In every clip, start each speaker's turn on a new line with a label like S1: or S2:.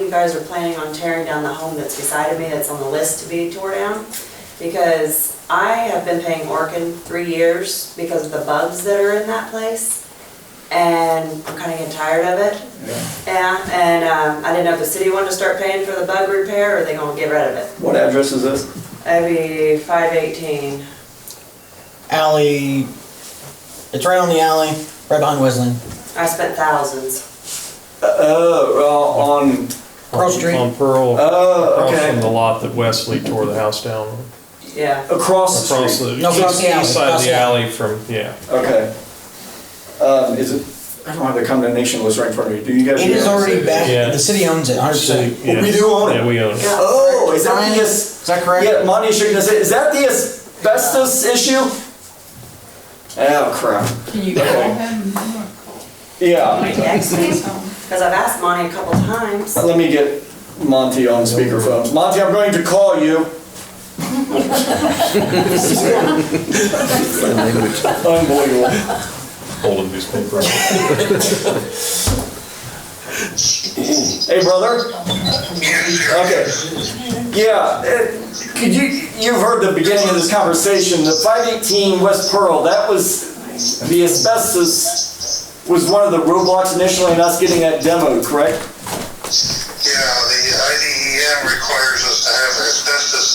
S1: you guys are planning on tearing down the home that's beside of me that's on the list to be tore down? Because I have been paying Orkin three years because of the bugs that are in that place. And I'm kinda getting tired of it. Yeah, and, um, I didn't know if the city wanted to start paying for the bug repair or they gonna get rid of it.
S2: What address is this?
S1: That'd be five eighteen.
S3: alley. It's right on the alley, right behind Wesleyan.
S1: I spent thousands.
S2: Oh, uh, on,
S3: Pearl Street.
S4: On Pearl,
S2: oh,
S4: across from the
S2: okay.
S4: lot that Wesley tore the house down. on.
S1: Yeah.
S2: Across the
S4: Across
S2: street.
S4: the,
S3: No, across
S4: east
S3: the alley,
S4: east side
S3: across
S4: of the
S3: the alley.
S4: alley from, yeah.
S2: Okay. Um, is it, I don't have the condemnation list right in front of me. Do you guys?
S3: It is already back.
S4: Yeah.
S3: The city owns it, 100. percent
S4: Yeah.
S2: We do own it.
S4: Yeah, we own it.
S2: Oh, is that the, as-
S3: Is that correct?
S2: yeah, Monty is shaking his head. Is that the asbestos issue? Oh, crap.
S5: Can you call him?
S2: Yeah,
S1: Next week, Cause I've asked Monty a couple times.
S2: let me get Monty on speakerphone. Monty, I'm going to call you. Unbelievable.
S4: Holding newspaper.
S2: Hey, brother? Okay. Yeah, it- could you, you've heard the beginning of this conversation, the 518 West Pearl, that was, the asbestos was one of the roadblocks initially in us getting that demo, correct?
S6: Yeah, the IDEM requires us to have asbestos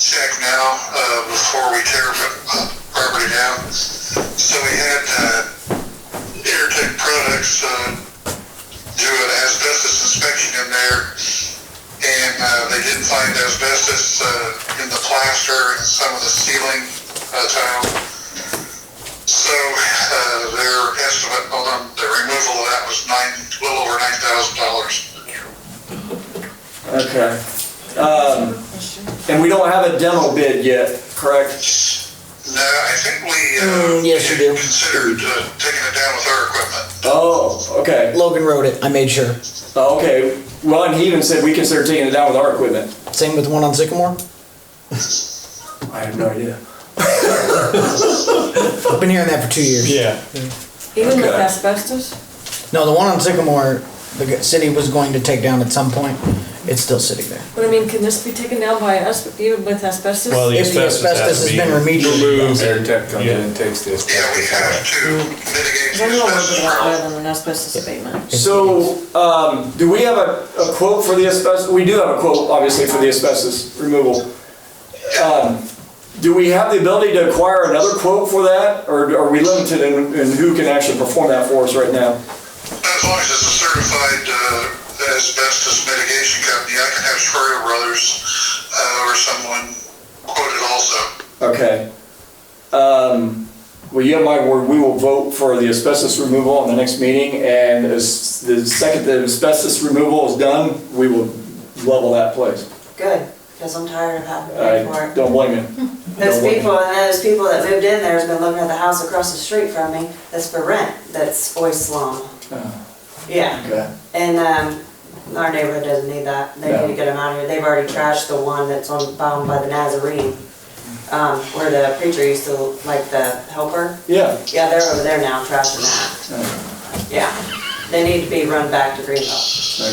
S6: check now, uh, before we tear the property down. So we had, uh, AirTech Products, uh, do an asbestos inspection in there, and, uh, they did find asbestos, uh, in the plaster and some of the ceiling, uh, tile. So, uh, their estimate on the removal of that was nine, a little over nine thousand dollars.
S2: Okay. Um, And we don't have a demo bid yet, correct?
S6: No, I think we, uh,
S3: Mm, yes, you do.
S6: considered, uh, taking it down with our equipment.
S2: Oh, okay, Uh,
S3: Logan wrote it. I made sure.
S2: okay. Well, and he even said we consider taking it down with our equipment.
S3: Same with the one on Sycamore.
S2: I have no idea.
S3: I've been hearing that for two years.
S4: Yeah.
S5: Even with
S2: Okay.
S5: asbestos?
S3: No, the one on Sycamore, the g- city was going to take down at some point. It's still sitting there.
S5: But I mean, can this be taken down by us, even with asbestos?
S4: Well, the
S3: If the
S4: asbestos has to
S3: asbestos
S4: be
S3: has been remediated,
S4: removed.
S7: Air Tech comes in
S4: Yeah.
S7: and takes the
S6: Yeah, we
S7: asbestos
S6: have
S7: out.
S6: to
S3: Mm.
S6: mitigate
S5: Because
S6: the
S5: I know a little
S6: asbestos
S5: bit about
S6: problem.
S5: oil and asbestos abatement.
S2: So, um, do we have a, a quote for the asbestos? We do have a quote, obviously, for the asbestos removal. Um, do we have the ability to acquire another quote for that, or are we limited in, in who can actually perform that for us right now?
S6: As long as it's a certified, uh, asbestos mitigation company, I can have Schroeder Brothers, uh, or someone quoted also.
S2: Okay. Um, well, you have my word, we will vote for the asbestos removal on the next meeting, and as the second the asbestos removal is done, we will level that place.
S1: Good, cause I'm tired of having to pay for
S2: I
S1: it.
S2: don't blame you.
S1: Those
S2: Don't worry.
S1: people, and those people that moved in there has been living at the house across the street from me, that's for rent, that's oyster slum.
S2: Oh.
S1: Yeah,
S2: Okay.
S1: and, um, our neighborhood doesn't need that, they need to
S2: No.
S1: get them out of here, they've already trashed the one that's on, bound by the Nazarene, um, where the preacher used to, like, the helper,
S2: Yeah.
S1: yeah, they're over there now trashing that,
S2: Oh.
S1: yeah. They need to be run back to Greenville.
S2: Okay.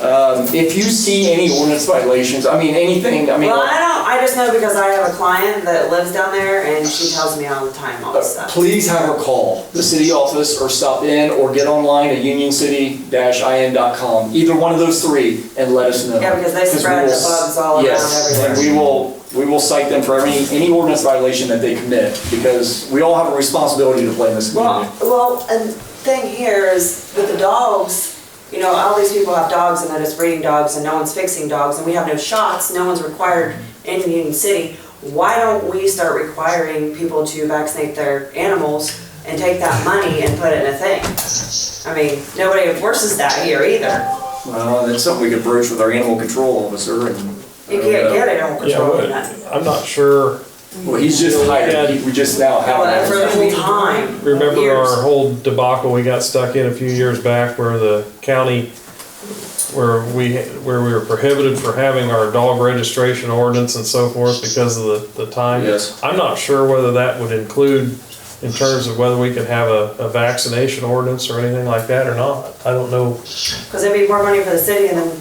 S2: Um, If you see any ordinance violations, I mean, anything, I mean,
S1: Well, I don't, I just know because I have a client that lives down there, and she tells me all the time all this
S2: uh,
S1: stuff.
S2: please have her call the city office or stop in or get online at unioncity-in.com, either one of those three, and let us know.
S1: Yeah, because they
S2: we
S1: spread
S2: will
S1: the
S2: s-
S1: bugs all
S2: Yes,
S1: around
S2: and
S1: everywhere.
S2: we will, we will cite them for any, any ordinance violation that they commit, because we all have a responsibility to play in this community.
S1: Well, well, and thing here is with the dogs, you know, all these people have dogs and they're just breeding dogs and no one's fixing dogs and we have no shots, no one's required in Union City. Why don't we start requiring people to vaccinate their animals and take that money and put it in a thing? I mean, nobody enforces that here either.
S2: Well, that's something we could broach with our animal control officer and. uh,
S1: You can't get it on
S4: Oh, Yeah,
S1: control.
S4: but I'm not sure,
S2: Well, he's just hired, He- we just now
S1: Oh, that's
S2: have.
S1: for
S2: him.
S1: the whole time.
S4: remember
S1: Years.
S4: our whole debacle we got stuck in a few years back where the county, where we, where we were prohibited for having our dog registration ordinance and so forth because of the, the time?
S2: Yes.
S4: I'm not sure whether that would include in terms of whether we can have a, a vaccination ordinance or anything like that or not. I don't know
S1: Because it'd be more money for the city and then